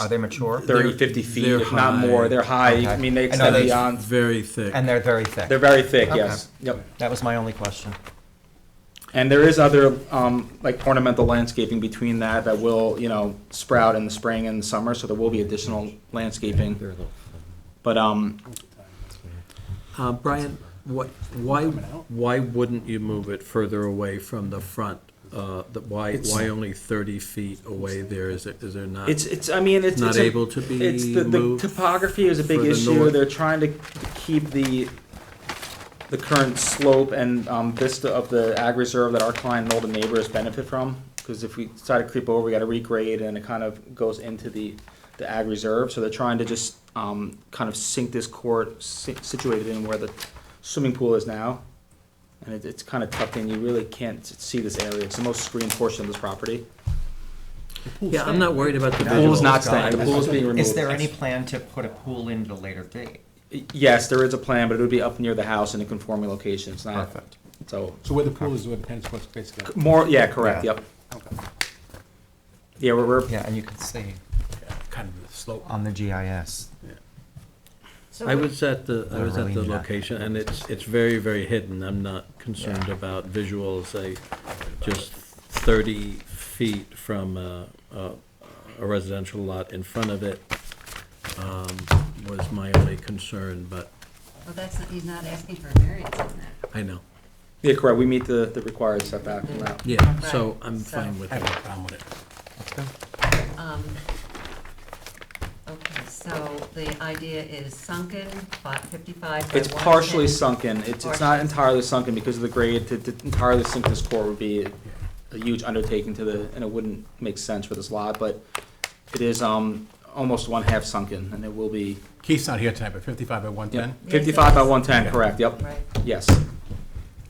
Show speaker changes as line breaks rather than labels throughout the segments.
Are they mature?
30,
They're-
50 feet,
they're
if not more.
high.
They're high.
Okay.
I mean, they
I know
extend
that's-
beyond.
Very thick.
And they're very thick.
They're very thick,
Okay.
yes. Yep.
That was my only question.
And there is other, um, like ornamental landscaping between that that will, you know, sprout in the spring and summer, so there will be additional landscaping. But, um,
Uh, Brian, what, why, why wouldn't you move it further away from the front? Uh, the- Why,
It's-
why only 30 feet away there? Is it, is there not?
it's, it's, I mean, it's.
Not
it's a-
able to be
It's, the, the
moved
topography is a big
further
issue.
north?
They're trying to keep the, the current slope and, um, vista of the ag reserve that our client and all the neighbors benefit from. Cause if we try to creep over, we gotta regrade and it kind of goes into the, the ag reserve. So they're trying to just, um, kind of sink this court si- situated in where the swimming pool is now. And it, it's kind of tucked in. You really can't see this area. It's the most screened portion of this property.
Yeah, I'm not worried about the
The pool's
visuals.
not staying. The pool's being removed.
Is there any plan to put a pool in at a later date?
Yes, there is a plan, but it would be up near the house in a conforming location, it's not,
Perfect.
so,
So where the pool is, where the tennis court's basically.
more, yeah, correct,
Yeah.
yep. Yeah, we're, we're,
Yeah, and you can see
Kind of the slope.
on the GIS.
I was at the, I was at the
Really not.
location, and it's, it's very, very hidden. I'm not concerned about visuals. I, just 30 feet from a, a residential lot in front of it um, was my only concern, but
Well, that's, not- he's not asking for a variance on that.
I know.
yeah, correct, we meet the, the required setback from that.
Yeah, so I'm
So-
fine with
I have no
it.
problem with it.
Um, Okay, so the idea is sunken, fi- 55 by
It's partially
110.
sunken, it's, it's not entirely sunken because of the grade, to, to entirely sink this core would be a huge undertaking to the, and it wouldn't make sense for this lot, but it is, um, almost one half sunken, and it will be,
Keith's not here tonight, but fifty-five by
yeah,
one-ten?
it
fifty-five by
is.
one-ten, correct, yep,
Right,
yes.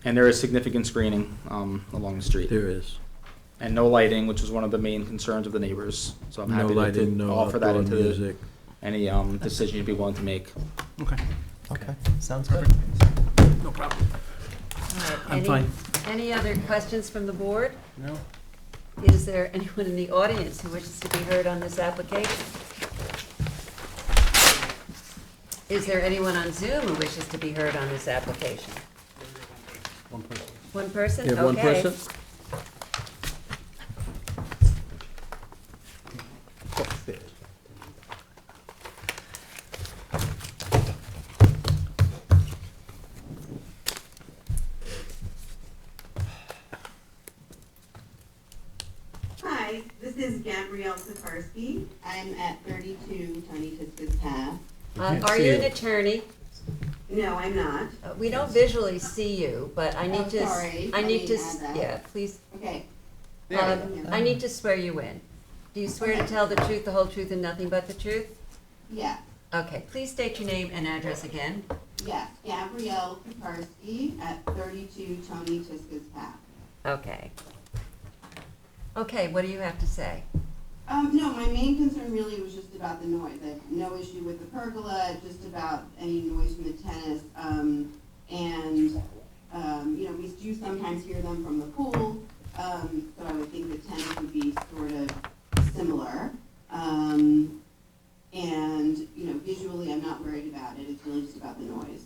And there is significant screening, um, along the street.
There is.
and no lighting, which was one of the main concerns of the neighbors. So I'm
No
happy to-
lighting,
to
no
offer that
outdoor
into the-
music.
any um, decision you'd be willing to make.
Okay,
Okay, sounds good.
no problem.
all right.
I'm
Any-
fine.
Any other questions from the board?
No?
Is there anyone in the audience who wishes to be heard on this application? Is there anyone on Zoom who wishes to be heard on this application?
One person.
One person?
You have one
Okay.
person?
Hi, this is Gabrielle Safarski. I'm at 32 Tony Tiskus Path.
Uh, Are you an attorney?
No, I'm not.
Uh, We don't visually see you, but I need
Oh,
to, s-
sorry.
I
I
need to,
didn't
s-
add that.
yeah, please,
Okay. There we
um,
go.
I need to swear you in. Do you swear to
Okay.
tell the truth, the whole truth, and nothing but the truth?
Yeah,
Okay, please state your name and address again.
yeah. Gabrielle Safarski at 32 Tony Tiskus Path.
Okay. Okay, what do you have to say?
Um, no, my main concern really was just about the noise. I have no issue with the pergola, just about any noise from the tennis. Um, and, um, you know, we do sometimes hear them from the pool, um, so I would think the tennis would be sort of similar. Um, and, you know, visually, I'm not worried about it. It's really just about the noise.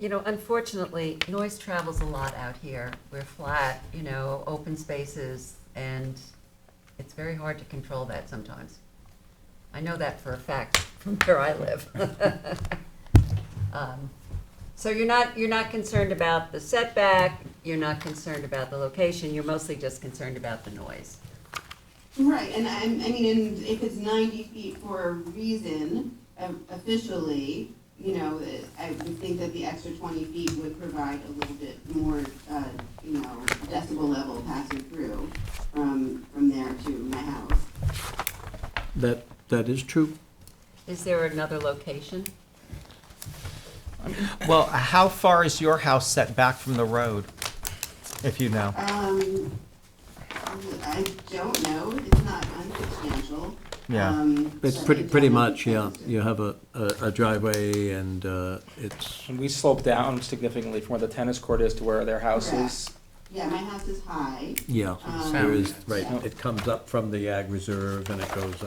You know, unfortunately, noise travels a lot out here. We're flat, you know, open spaces, and it's very hard to control that sometimes. I know that for a fact from where I live. Um, So you're not, you're not concerned about the setback, you're not concerned about the location, you're mostly just concerned about the noise.
Right, and I, I mean, and if it's ninety feet for a reason, um, officially, you know, I would think that the extra twenty feet would provide a little bit more, uh, you know, decibel level passing through from, from there to my house.
That, that is true.
Is there another location?
Well, how far is your house set back from the road, if you know?
Um, I don't know, it's not unsubstantial.
Yeah.
Um,
It's
but I
pretty,
don't
pretty
know the
much, yeah.
distance.
You have a, a a driveway and uh, it's,
And we slope down significantly from where the tennis court is to where their house is.
Yeah, my house is high.
yeah,
Um,
there is, right,
yeah.
it comes up from the ag reserve and it goes